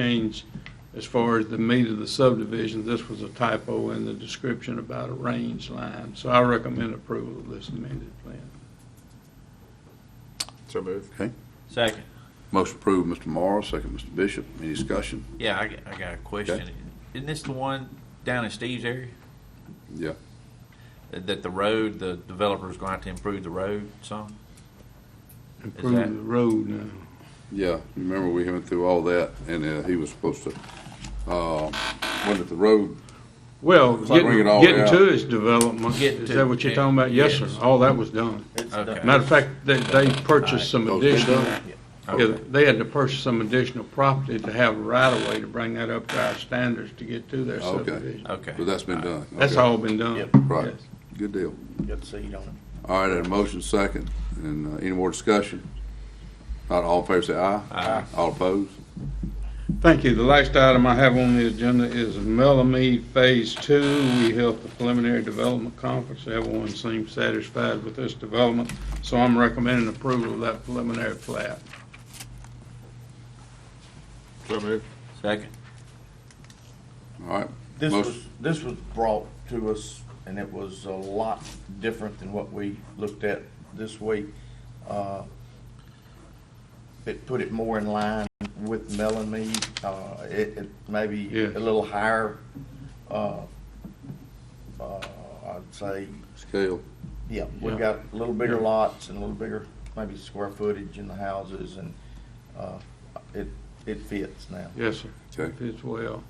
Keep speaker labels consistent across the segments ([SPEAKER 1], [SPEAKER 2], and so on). [SPEAKER 1] change as far as the meat of the subdivision. This was a typo in the description about a range line, so I recommend approval of this amended plan.
[SPEAKER 2] So moved.
[SPEAKER 3] Okay.
[SPEAKER 4] Second.
[SPEAKER 3] Motion approved, Mr. Morrow, second, Mr. Bishop. Any discussion?
[SPEAKER 4] Yeah, I, got- I got a question.
[SPEAKER 3] Okay.
[SPEAKER 4] Isn't this the one down in Steve's area?
[SPEAKER 3] Yeah.
[SPEAKER 4] That the road, the developer's going to have to improve the road some?
[SPEAKER 1] Improve
[SPEAKER 4] that-
[SPEAKER 1] the road now.
[SPEAKER 3] Yeah, remember we went through all that, and uh, he was supposed to, uh, wasn't it the road?
[SPEAKER 1] Well,
[SPEAKER 3] It's like
[SPEAKER 1] getting,
[SPEAKER 3] bring it all
[SPEAKER 1] getting
[SPEAKER 3] out.
[SPEAKER 1] to its development,
[SPEAKER 4] Getting
[SPEAKER 1] is
[SPEAKER 4] to-
[SPEAKER 1] that what you're talking about? Yes, sir,
[SPEAKER 4] Yes.
[SPEAKER 1] all that was done.
[SPEAKER 4] Okay.
[SPEAKER 1] Matter of fact, they, they purchased some
[SPEAKER 3] Those been
[SPEAKER 1] additional,
[SPEAKER 3] done?
[SPEAKER 1] yeah, they had to purchase some additional property to have a right of way to bring that up to our standards to get to their
[SPEAKER 3] Oh, okay.
[SPEAKER 1] subdivision.
[SPEAKER 4] Okay.
[SPEAKER 3] So that's been done.
[SPEAKER 1] That's
[SPEAKER 3] Okay.
[SPEAKER 1] all been done.
[SPEAKER 5] Yep.
[SPEAKER 3] Right.
[SPEAKER 1] Yes.
[SPEAKER 3] Good deal.
[SPEAKER 5] Got the seat on
[SPEAKER 3] All right, and a motion second, and uh, any more discussion? Not all in favor, say aye.
[SPEAKER 4] Aye.
[SPEAKER 3] All opposed?
[SPEAKER 1] Thank you. The last item I have on the agenda is Melamie Phase Two. We held the preliminary development conference. Everyone seems satisfied with this development, so I'm recommending approval of that preliminary plat.
[SPEAKER 2] So moved.
[SPEAKER 4] Second.
[SPEAKER 3] All right.
[SPEAKER 5] it. This
[SPEAKER 3] Most-
[SPEAKER 5] was, this was brought to us, and it was a lot different than what we looked at this week. Uh, It put it more in line with Melanie, uh, it, it maybe
[SPEAKER 1] Yes.
[SPEAKER 5] a little higher, uh, uh, I'd say,
[SPEAKER 3] Scale.
[SPEAKER 5] yeah, we've
[SPEAKER 1] Yeah.
[SPEAKER 5] got a little bigger
[SPEAKER 1] Yeah.
[SPEAKER 5] lots and a little bigger, maybe square footage in the houses, and, uh, it, it fits now.
[SPEAKER 1] Yes, sir.
[SPEAKER 3] Okay.
[SPEAKER 1] Fits well.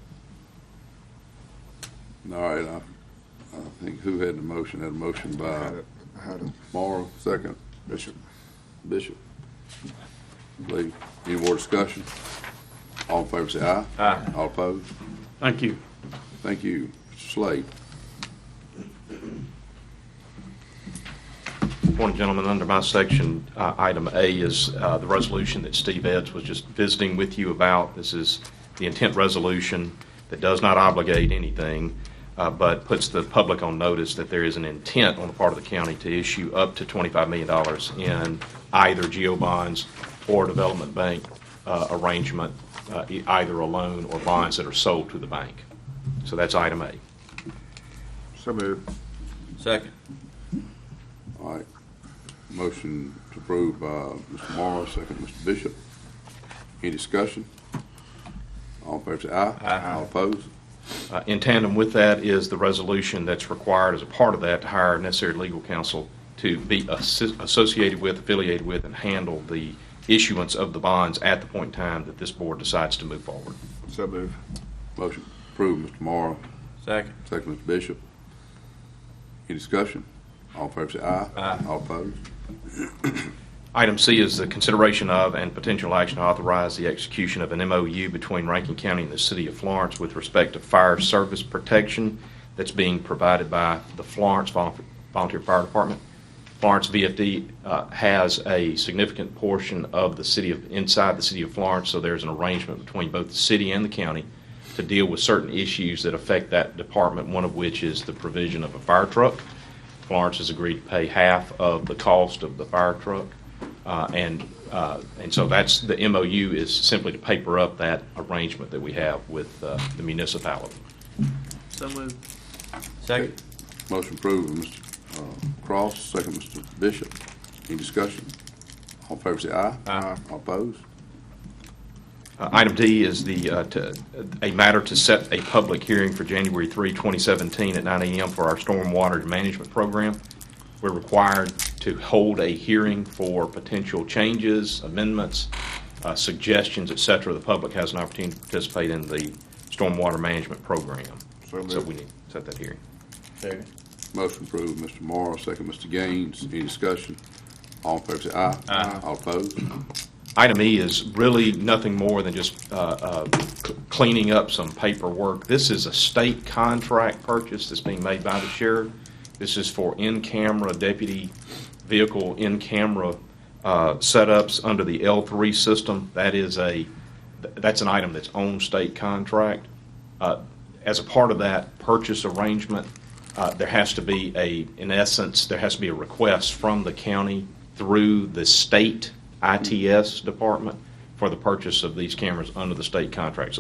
[SPEAKER 3] All right, I, I think who had the motion? Had a motion
[SPEAKER 2] I
[SPEAKER 3] by
[SPEAKER 2] had it. I had it.
[SPEAKER 3] Morrow, second,
[SPEAKER 2] Bishop.
[SPEAKER 3] Bishop. Lee, any more discussion? All in favor, say aye.
[SPEAKER 4] Aye.
[SPEAKER 3] All opposed?
[SPEAKER 1] Thank you.
[SPEAKER 3] Thank you, Mr. Slade.
[SPEAKER 6] Morning, gentlemen. Under my section, uh, item A is uh, the resolution that Steve Eds was just visiting with you about. This is the intent resolution that does not obligate anything, uh, but puts the public on notice that there is an intent on the part of the county to issue up to $25 million in either geo bonds or development bank uh, arrangement, uh, e- either a loan or bonds that are sold to the bank. So that's item A.
[SPEAKER 2] So moved.
[SPEAKER 4] Second.
[SPEAKER 3] All right. Motion to approve by Mr. Morrow, second, Mr. Bishop. Any discussion? All in favor, say aye.
[SPEAKER 4] Aye.
[SPEAKER 3] All opposed?
[SPEAKER 6] Uh, In tandem with that is the resolution that's required as a part of that to hire necessary legal counsel to be assi- associated with, affiliated with, and handle the issuance of the bonds at the point in time that this board decides to move forward.
[SPEAKER 2] So moved.
[SPEAKER 3] Motion approved, Mr. Morrow,
[SPEAKER 4] Second.
[SPEAKER 3] second, Mr. Bishop. Any discussion? All in favor, say aye.
[SPEAKER 4] Aye.
[SPEAKER 3] All opposed?
[SPEAKER 6] Item C is the consideration of and potential action to authorize the execution of an MOU between Rankin County and the City of Florence with respect to fire service protection that's being provided by the Florence Vol- Volunteer Fire Department. Florence VFD uh, has a significant portion of the city of, inside the City of Florence, so there's an arrangement between both the city and the county to deal with certain issues that affect that department, one of which is the provision of a fire truck. Florence has agreed to pay half of the cost of the fire truck. Uh, And, uh, and so that's, the MOU is simply to paper up that arrangement that we have with uh, the municipality.
[SPEAKER 4] So moved. Second.
[SPEAKER 3] Motion approved, by Mr. uh, Cross, second, Mr. Bishop. Any discussion? All in favor, say aye.
[SPEAKER 4] Aye.
[SPEAKER 3] All opposed?
[SPEAKER 6] Uh, Item D is the, uh, to- a matter to set a public hearing for January 3, 2017 at 9 a.m. for our stormwater management program. We're required to hold a hearing for potential changes, amendments, uh, suggestions, et cetera. The public has an opportunity to participate in the stormwater management program.
[SPEAKER 2] So moved.
[SPEAKER 6] So we need to set that hearing.
[SPEAKER 5] Second.
[SPEAKER 3] Motion approved, Mr. Morrow, second, Mr. Gaines. Any discussion? All in favor, say aye. Aye. All opposed?
[SPEAKER 6] Item E is really nothing more than just uh, uh, cl- cleaning up some paperwork. This is a state contract purchase that's being made by the sheriff. This is for in-camera deputy vehicle, in-camera uh, setups under the L3 system. That is a, th- that's an item that's on state contract. Uh, As a part of that purchase arrangement, uh, there has to be a, in essence, there has to be a request from the county through the state ITS department for the purchase of these cameras under the state contract. So